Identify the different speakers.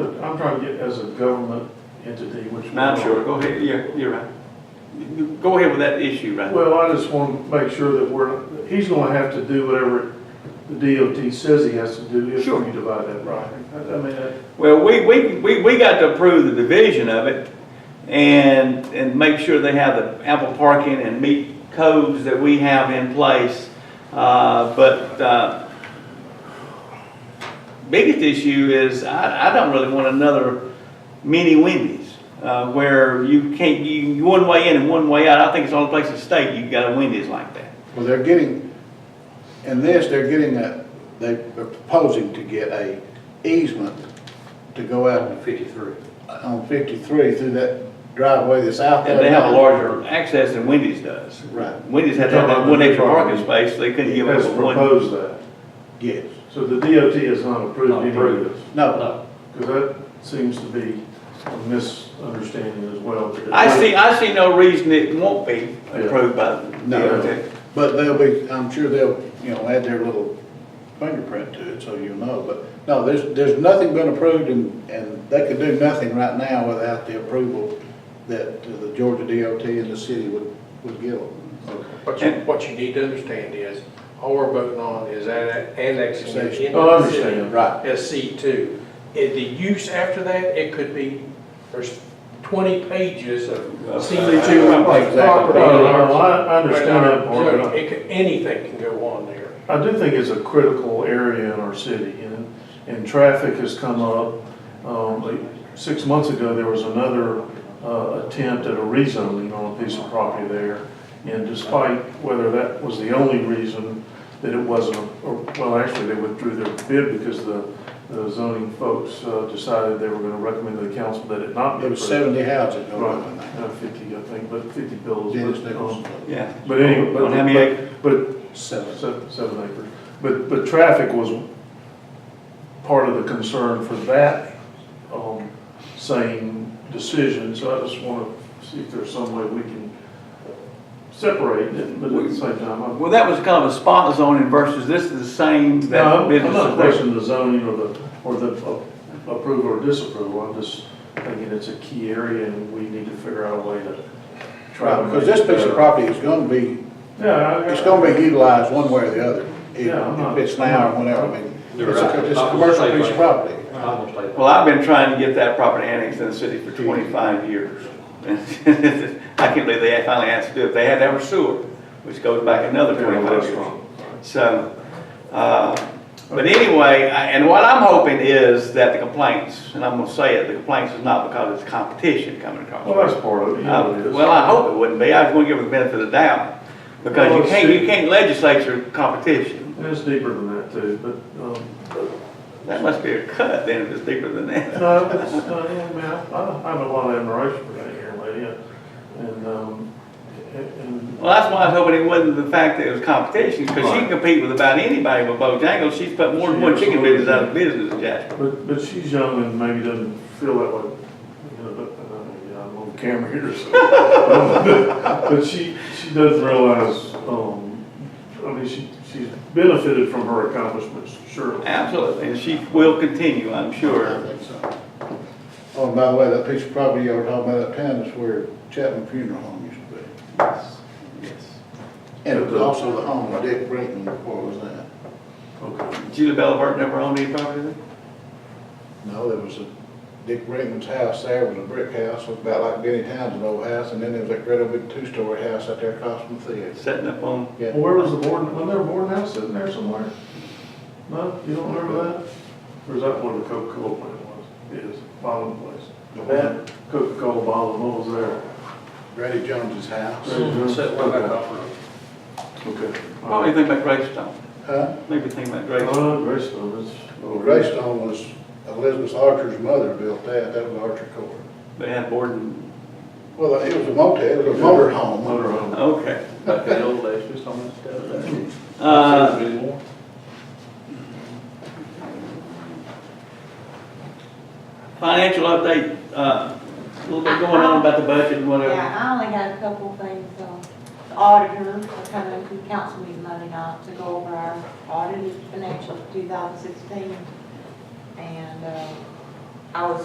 Speaker 1: I'm trying to get as a government entity, which. we
Speaker 2: No, I'm
Speaker 1: are.
Speaker 2: sure, go ahead, you're, you're right. Go ahead with that issue right
Speaker 1: Well, I just want to make sure that we're, he's going to have to do whatever the DOT says he has to do if
Speaker 2: Sure.
Speaker 1: we divide that right. I I mean, that-
Speaker 2: Well, we, we, we, we got to approve the division of it and, and make sure they have the ample parking and meet codes that we have in place. Uh, but, uh, biggest issue is I, I don't really want another mini Wendy's, uh, where you can't, you, you one way in and one way out. I think it's the only place in the state you've got a Wendy's like that.
Speaker 3: Well, they're getting, in this, they're getting a, they're proposing to get a easement to go out
Speaker 4: Fifty-three.
Speaker 3: on fifty-three through that driveway that's out there.
Speaker 2: And they have a
Speaker 3: now.
Speaker 2: larger access than Wendy's does.
Speaker 3: Right,
Speaker 2: Wendy's had that one extra parking space, so they couldn't
Speaker 1: He
Speaker 2: give us
Speaker 1: has
Speaker 2: one.
Speaker 1: proposed that.
Speaker 3: yes.
Speaker 1: So the DOT has not approved
Speaker 4: Not
Speaker 1: any of
Speaker 4: approved.
Speaker 1: this.
Speaker 3: No,
Speaker 4: No,
Speaker 1: Because that seems to be a misunderstanding as well. that it-
Speaker 2: I see, I see no reason it won't be approved by the
Speaker 3: No.
Speaker 2: DOT.
Speaker 3: but they'll be, I'm sure they'll, you know, add their little fingerprint to it, so you'll know, but, no, there's, there's nothing been approved and, and they could do nothing right now without the approval that the Georgia DOT and the city would, would give them.
Speaker 5: What you, what you need to understand is, all we're voting on is anne- annexing it into the city.
Speaker 1: Oh, I understand.
Speaker 3: Right.
Speaker 5: As C two. And the use after that, it could be, there's twenty pages of C two
Speaker 3: Exactly.
Speaker 5: property.
Speaker 1: No, no, no, I I understand that part, but I-
Speaker 5: It could, anything can go on there.
Speaker 1: I do think it's a critical area in our city, and, and traffic has come up. Um, like, Six months ago, there was another uh, attempt at a rezoning on a piece of property there. And despite whether that was the only reason that it wasn't, or, well, actually, they withdrew their bid because the the zoning folks uh, decided they were gonna recommend to the council that it not be
Speaker 3: There was
Speaker 1: approved.
Speaker 3: seventy houses
Speaker 1: Right,
Speaker 3: going on there.
Speaker 1: uh, fifty, I think, but fifty bills. but,
Speaker 3: Dennis
Speaker 1: um,
Speaker 3: Nichols,
Speaker 2: Yeah.
Speaker 1: But anyway,
Speaker 2: On how many acres?
Speaker 1: but, but
Speaker 3: seven.
Speaker 1: Seven, seven acres. But, but traffic was part of the concern for that, um, same decision, so I just wanna see if there's some way we can separate it, but at the same time, I'm.
Speaker 2: Well, that was kind of a spot zoning versus this is the same
Speaker 1: No,
Speaker 2: that
Speaker 1: I'm- I'm
Speaker 2: business
Speaker 1: not
Speaker 2: is there.
Speaker 1: questioning the zoning or the, or the a- approval or disapproval, I'm just thinking it's a key area and we need to figure out a way to try. to
Speaker 3: Because
Speaker 1: make
Speaker 3: this
Speaker 1: it
Speaker 3: piece of
Speaker 1: better.
Speaker 3: property is gonna be,
Speaker 1: Yeah, I-
Speaker 3: it's gonna be utilized one way or the other. If
Speaker 1: Yeah, I'm not-
Speaker 3: if it's now or whenever, I mean,
Speaker 4: You're
Speaker 3: it's
Speaker 4: right.
Speaker 3: a, it's a
Speaker 4: I'm
Speaker 3: commercial
Speaker 4: saying-
Speaker 3: piece of property.
Speaker 4: I'm gonna say that.
Speaker 2: Well, I've been trying to get that property annexed in the city for twenty-five years. I can't believe they finally asked to do it. They had to have a sewer, which goes back another
Speaker 1: Yeah,
Speaker 2: twenty-five
Speaker 1: that's
Speaker 2: years.
Speaker 1: wrong.
Speaker 2: So, uh, but anyway, I- and what I'm hoping is that the complaints, and I'm gonna say it, the complaints is not because it's competition coming across.
Speaker 1: Well, that's part of it, you know, it
Speaker 2: Uh,
Speaker 1: is.
Speaker 2: Well, I hope it wouldn't be, I was gonna give it the benefit of the doubt, because you can't, you can't legislature competition.
Speaker 1: And It's deeper than that too, but, um,
Speaker 2: That must be a cut, then, if it's deeper than that.
Speaker 1: no, it's, uh, yeah, I mean, I, I have a lot of admiration for that young lady, uh, and, um, and- and,
Speaker 2: Well, that's why I was hoping it wasn't the fact that it was competition, because she can compete with about anybody with Bojangles, she's put more than one chicken business out of business, Jack.
Speaker 1: but, but she's young and maybe doesn't feel that way, you know, but, uh, yeah, I'm on camera here, so. But- But she, she doesn't realize, um, I mean, she, she's benefited from her accomplishments, surely.
Speaker 2: Absolutely, and she will continue, I'm
Speaker 3: I
Speaker 2: sure.
Speaker 3: think so. Oh, and by the way, that piece of property you were talking about uptown is where Chapman Funeral Home used to be.
Speaker 2: Yes.
Speaker 3: And it was also the home of Dick Brinkman before it was that.
Speaker 1: Okay.
Speaker 2: Julie Bellavert never owned any property there?
Speaker 3: No, there was a, Dick Brinkman's house there was a brick house, looked about like Benny Townsend's old house, and then there was that great big two-story house out there across from the theater.
Speaker 2: Setting up on,
Speaker 3: Yeah.
Speaker 1: Well, where was the board, wasn't there a board house sitting there somewhere? No, you don't remember that? Or is that where the Coca-Cola plant was? It is, bottom place.
Speaker 3: Yeah.
Speaker 1: Coca-Cola bottle, what was there?
Speaker 3: Grady Jones's house.
Speaker 4: Set one back off road.
Speaker 1: Okay.
Speaker 2: what do you think oh, about Greystone?
Speaker 3: Huh?
Speaker 2: Maybe think about Greystone.
Speaker 1: Uh, Greystone, it's.
Speaker 3: Well, Greystone was Elizabeth Archer's mother built that, that was Archer Court.
Speaker 2: They had board and,
Speaker 3: Well, it was a motel, it was a motor home.
Speaker 1: Motor home.
Speaker 2: okay.
Speaker 4: Back in the old days, just on this stuff.
Speaker 2: Uh,
Speaker 4: Anymore.
Speaker 2: Financial update, uh, a little bit going on about the budget and whatever.
Speaker 6: Yeah, I only got a couple of things, um, the auditor, I come in from council meeting Monday night to go over our audited financials two thousand sixteen. And, uh, I was